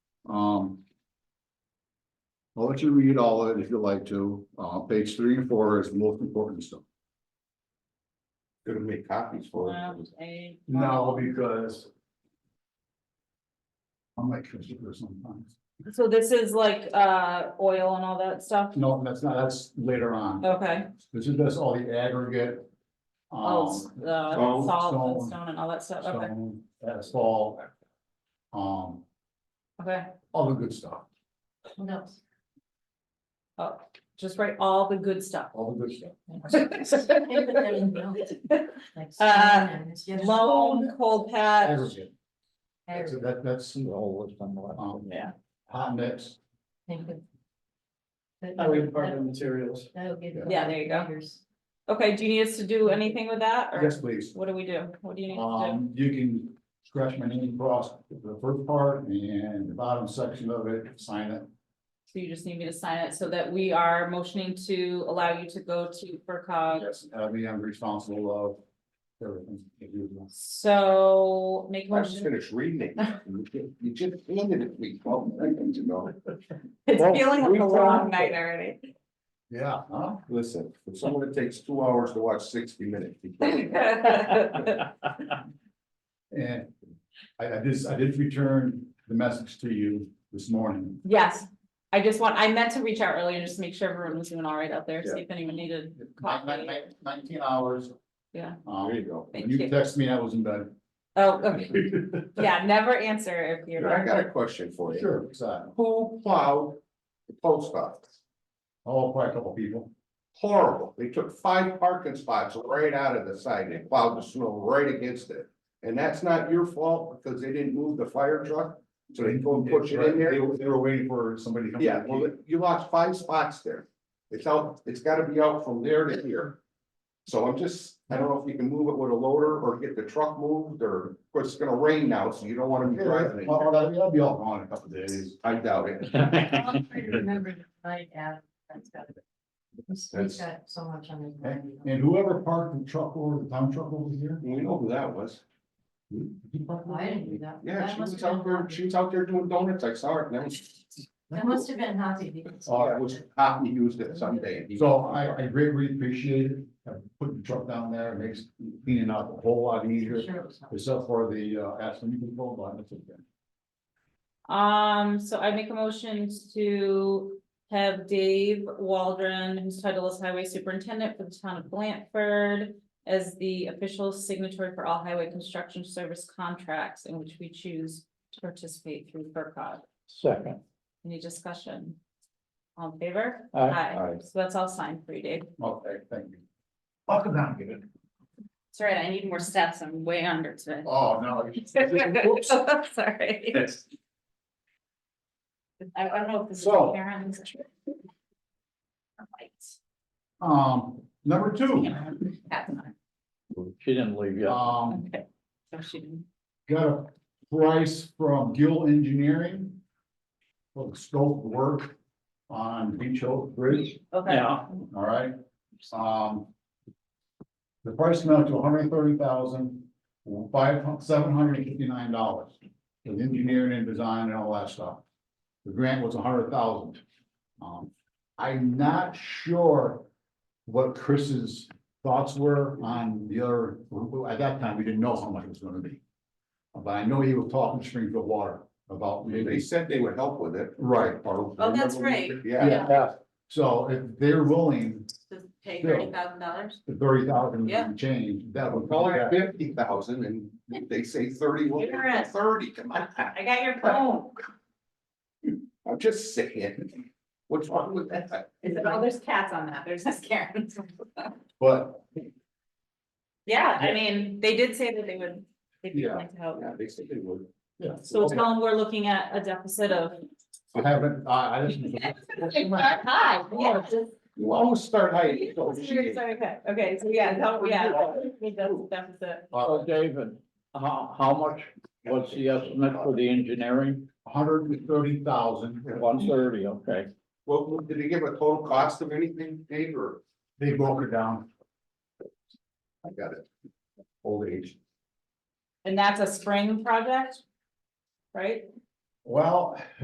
Um. I'll let you read all of it if you'd like to. Uh, page three and four is the most important stuff. Gonna make copies for One, it. eight, No, oh. because. I'm like, computer sometimes. So this is like, uh, oil and all that stuff? No, that's not, that's later on. Okay, This is just all the aggregate. all, Um, s- uh, stone, salt and stone. stone and all that stuff, okay, so that's all. Um, okay. all the good stuff, What else? Oh, just write all the good stuff. all the good stuff. uh, Loan, cold patch, Aggregate, that's, that- that's the whole list on the left. Um, Yeah. Hot mix, Oh, Highway Department materials. Yeah, there you go. okay, do you need us to do anything with that, or yes, please. what do we do, what do you need to do? Um, you can scratch my name across the first part and the bottom section of it, sign it. So you just need me to sign it so that we are motioning to allow you to go to FERCog. Yes, I mean, I'm responsible of everything. that you do. So make a I just motion, finished reading it. You just handed it me twelve seconds ago. it's Well, feeling like we a long were- night already. Yeah, huh? Listen, if someone takes two hours to watch sixty minutes. you can't. And I, I did, I did return the message to you this morning. Yes, I just want, I meant to reach out earlier, just to make sure everyone was doing all right out there, see if anyone needed Nine- coffee. nine- nine- Nineteen hours. Yeah. There Um, you go. when you Thank you. texted me, I was in bed. Oh, okay, yeah, never answer if you're. I got a question for you. Sure, exactly. Who plowed the post office? Oh, quite a couple people. Horrible. They took five parking spots right out of the side. They plowed the snow right against it. And that's not your fault because they didn't move the fire truck. So they go and push it in there. They were, they were waiting for somebody to come. Yeah, well, you lost five spots there. It's out, it's gotta be out from there to here. So I'm just, I don't know if you can move it with a loader or get the truck moved or, of course, it's gonna rain now, so you don't wanna be driving it. Well, that'll that'll be all gone in a couple days. I doubt it. That's Remember to write out, that's got to be. He's That's- got so much on his Okay, mind. and whoever parked the truck over, the town truck over here. We know who that was. did he park over I didn't there? do that. Yeah, That she must was have out been there, Hoppy. she was out there doing donuts. I saw her. and That was, That must have been happy because. Oh, that was, Hoppy used it someday. So I, I greatly appreciate it, uh, putting the truck down there, It makes cleaning up a whole lot I'm easier, sure it was Hoppy. except for the, uh, aspen control, but that's okay. Um, so I make a motion to have Dave Waldron, whose title is Highway Superintendent for the town of Blanford. As the official signatory for all highway construction service contracts in which we choose to participate through FERCog. Second. Any discussion? All in favor? Aye. Aye. So that's all signed for you, Dave. Okay, thank you. I'll come down and get it. Sorry, I need more steps. I'm way under today. Oh, no. Whoops. Sorry. I I don't know if this is. So- Karen's. All right. Um, number two, That's mine. She didn't leave yet. um, Okay. So she didn't. got a price from Gill Engineering. For the scope of work on Beach Hill Bridge. Okay, Yeah, all right? Um. The price amounted to 130,559 dollars. With engineering and design and all that stuff. The grant was $100,000. Um, I'm not sure what Chris's thoughts were on the other, at that time, we didn't know how much it was gonna be. But I know he was talking to Springfield Water about They maybe, said they would help with it. right, Oh, that's right. Yeah, yeah, so if they're willing, to pay Yeah. thirty thousand dollars. the thirty thousand Yeah. change, that would. call it fifty thousand and they say thirty, well, You're right. thirty, come on. I got your Oh. phone. I'm just saying, what's wrong with that? Is it, oh, there's cats on that. There's this Karen. But, Yeah, I mean, they did say that they would, they'd be Yeah. willing to help. Yeah, they said they would. yeah, So tell them we're looking at a deficit of. I haven't, I, I didn't. Hi, yeah. You always start high. you go, Sorry, sorry, Okay, okay, so yeah, tell- yeah, we def- deficit. so David, how, how much was the estimate for the engineering? Hundred and thirty thousand, One thirty, okay. Well, well, did they give a total cost of anything, Dave, or? they broke it down, I got it. Old age. And that's a spring project? Right? well.